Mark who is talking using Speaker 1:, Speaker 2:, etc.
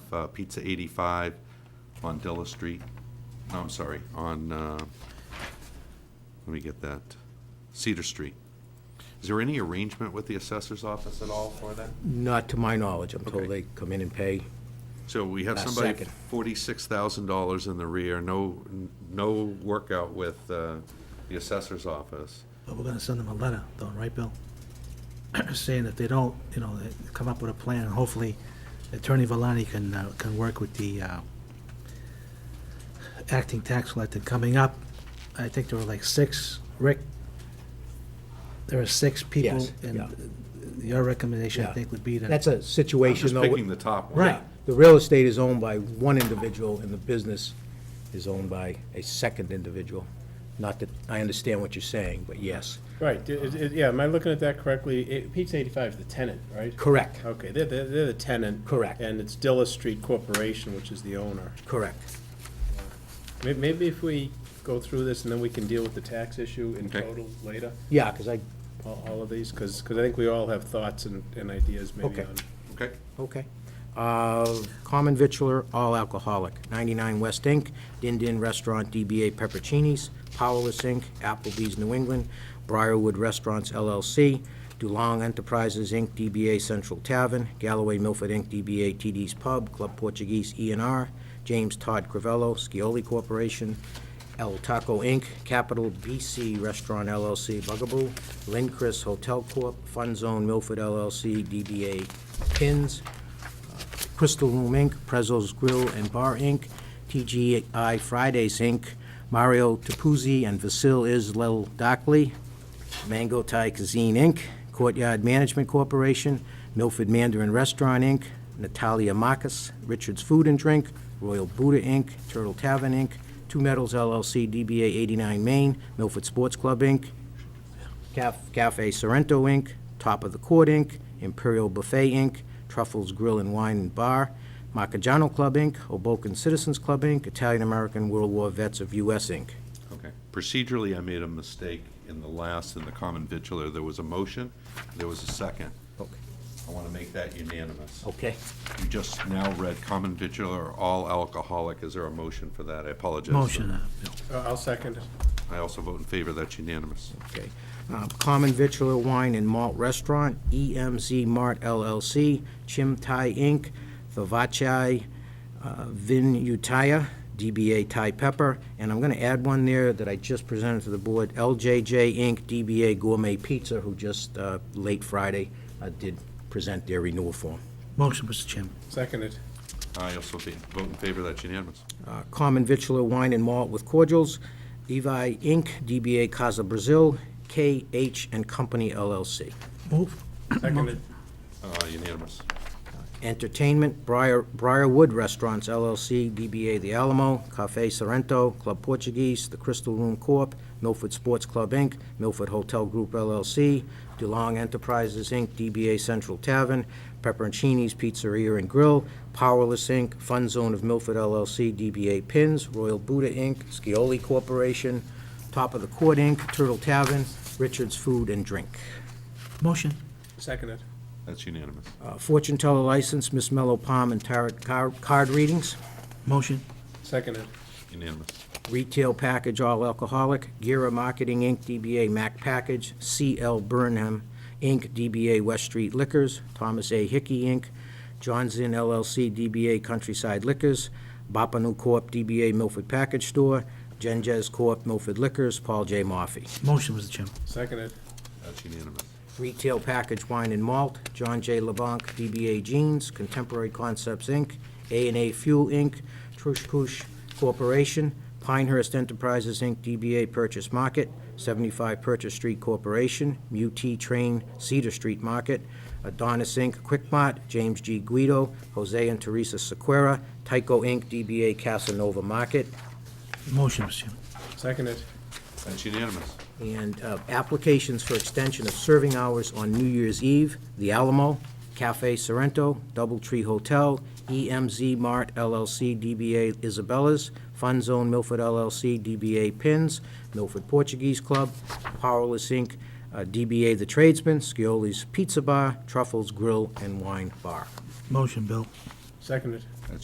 Speaker 1: have uh, Pizza 85 on Della Street, no, I'm sorry, on, uh, let me get that, Cedar Street. Is there any arrangement with the assessor's office at all for that?
Speaker 2: Not to my knowledge, I'm told
Speaker 1: Okay.
Speaker 2: they come in and pay.
Speaker 1: So we have
Speaker 2: Last
Speaker 1: somebody
Speaker 2: second.
Speaker 1: forty-six thousand dollars in the rear, no, no workout with uh, the assessor's office.
Speaker 3: But we're gonna send them a letter, though, right, Bill? Saying if they don't, you know, they come up with a plan, and hopefully Attorney Valani can, uh, can work with the, uh, acting tax collector coming up. I think there were like six, Rick, there are six people,
Speaker 2: Yes, yeah.
Speaker 3: and your recommendation, I
Speaker 2: Yeah.
Speaker 3: think, would be to.
Speaker 2: That's a
Speaker 1: I'm
Speaker 2: situation
Speaker 1: just
Speaker 2: though.
Speaker 1: picking the top one.
Speaker 3: Right.
Speaker 2: The real estate is owned by one individual and the business is owned by a second individual. Not that, I understand what you're saying, but yes,
Speaker 4: Right, d- is- is- yeah, am I looking at that correctly? It- Pizza 85 is the tenant, right?
Speaker 2: correct,
Speaker 4: Okay, they're, they're they're the tenant.
Speaker 2: Correct.
Speaker 4: And it's Dilla Street Corporation, which is the owner.
Speaker 2: correct.
Speaker 4: May- Maybe if we go through this and then we can deal with the tax issue in
Speaker 1: Okay.
Speaker 4: total later,
Speaker 2: Yeah, because I,
Speaker 4: all all of these, because, I think we all have thoughts and, and ideas maybe
Speaker 2: Okay.
Speaker 4: on.
Speaker 1: Okay,
Speaker 2: okay. Uh, Common Vitular, all alcoholic, 99 West Inc., Din Din Restaurant, DBA Peppercinis, Powerless Inc., Applebee's New England, Briarwood Restaurants LLC, DuLong Enterprises Inc., DBA Central Tavern, Galloway Milford Inc., DBA TD's Pub, Club Portuguese E and R, James Todd Crivello, Scioli Corporation, El Taco Inc., Capital BC Restaurant LLC, Bugaboo, Lindquist Hotel Corp., Fun Zone Milford LLC, DBA Pins, Crystal Room Inc., Prezzo's Grill and Bar Inc., TGI Fridays Inc., Mario Tapuzzi and Vasil Isla Dockley, Mango Thai Cuisine Inc., Courtyard Management Corporation, Milford Mandarin Restaurant Inc., Natalia Marcus, Richard's Food and Drink, Royal Buddha Inc., Turtle Tavern Inc., Two Metals LLC, DBA 89 Main, Milford Sports Club Inc., Caf- Cafe Sorrento, Inc., Top of the Court, Inc., Imperial Buffet, Inc., Truffles Grill and Wine and Bar, Macajano Club, Inc., Hoboken Citizens Club, Inc., Italian-American World War Vets of U.S., Inc.
Speaker 1: okay. Procedurally, I made a mistake in the last, in the common vitular, there was a motion, there was a second.
Speaker 2: Okay.
Speaker 1: I want to make that unanimous.
Speaker 2: Okay.
Speaker 1: You just now read common vitular, or all alcoholic, is there a motion for that? I apologize.
Speaker 3: Motion, uh, Bill.
Speaker 4: Uh, I'll second. it.
Speaker 1: I also vote in favor, that's unanimous.
Speaker 2: Okay. Uh, Common Vitular Wine and Malt Restaurant, EMZ Mart LLC, Chim Thai Inc., Thavachi uh, Vinyutaya, DBA Thai Pepper, and I'm going to add one there that I just presented to the board, LJJ Inc., DBA Gourmet Pizza, who just, uh, late Friday, uh, did present their renewal form.
Speaker 3: Motion, Mr. Chairman.
Speaker 4: Seconded.
Speaker 1: I also be- vote in favor, that's unanimous.
Speaker 2: uh, Common Vitular Wine and Malt with Cordials, Levi Inc., DBA Casa Brazil, KH and Company LLC.
Speaker 3: Move.
Speaker 4: Seconded.
Speaker 1: Uh, Unanimous.
Speaker 2: Entertainment, Briar- Briarwood Restaurants LLC, DBA The Alamo, Cafe Sorrento, Club Portuguese, The Crystal Room Corp., Milford Sports Club, Inc., Milford Hotel Group LLC, DeLong Enterprises, Inc., DBA Central Tavern, Pepperoncini's Pizzeria and Grill, Powerless, Inc., Fun Zone of Milford LLC, DBA Pins, Royal Buddha, Inc., Scioli Corporation, Top of the Court, Inc., Turtle Tavern, Richard's Food and Drink.
Speaker 3: Motion.
Speaker 4: Seconded.
Speaker 1: That's unanimous.
Speaker 2: Uh, Fortune teller license, Miss Mellow Palm and Tarot car- card readings.
Speaker 3: Motion.
Speaker 4: Seconded.
Speaker 1: Unanimous.
Speaker 2: Retail package, all alcoholic. Gira Marketing, Inc., DBA Mac Package. CL Burnham, Inc., DBA West Street Liquors. Thomas A. Hickey, Inc., John's Inn LLC, DBA Countryside Liquors. Bapanu Corp., DBA Milford Package Store. Genjaz Corp., Milford Liquors. Paul J. Murphy.
Speaker 3: Motion, Mr. Chairman.
Speaker 4: Seconded.
Speaker 1: That's unanimous.
Speaker 2: Retail package wine and malt, John J. LeBlanc, DBA Jeans, Contemporary Concepts, Inc., a and A Fuel, Inc., Trush Kush Corporation, Pinehurst Enterprises, Inc., DBA Purchase Market, 75 Purchase Street Corporation, Mut Train Cedar Street Market, Adonis, Inc., Quick Mart, James G. Guido, Jose and Teresa Sequera, Tyco, Inc., DBA Casanova Market,
Speaker 3: Motion, Mr. Chairman.
Speaker 4: Seconded.
Speaker 1: That's unanimous.
Speaker 2: and uh, applications for extension of serving hours on New Year's Eve, The Alamo, Cafe Sorrento, Doubletree Hotel, EMZ Mart LLC, DBA Isabella's, Fun Zone Milford LLC, DBA Pins, Milford Portuguese Club, Powerless Inc., uh, DBA The Tradesman, Scioli's Pizza Bar, Truffles Grill and Wine Bar.
Speaker 3: Motion, Bill.
Speaker 4: Seconded.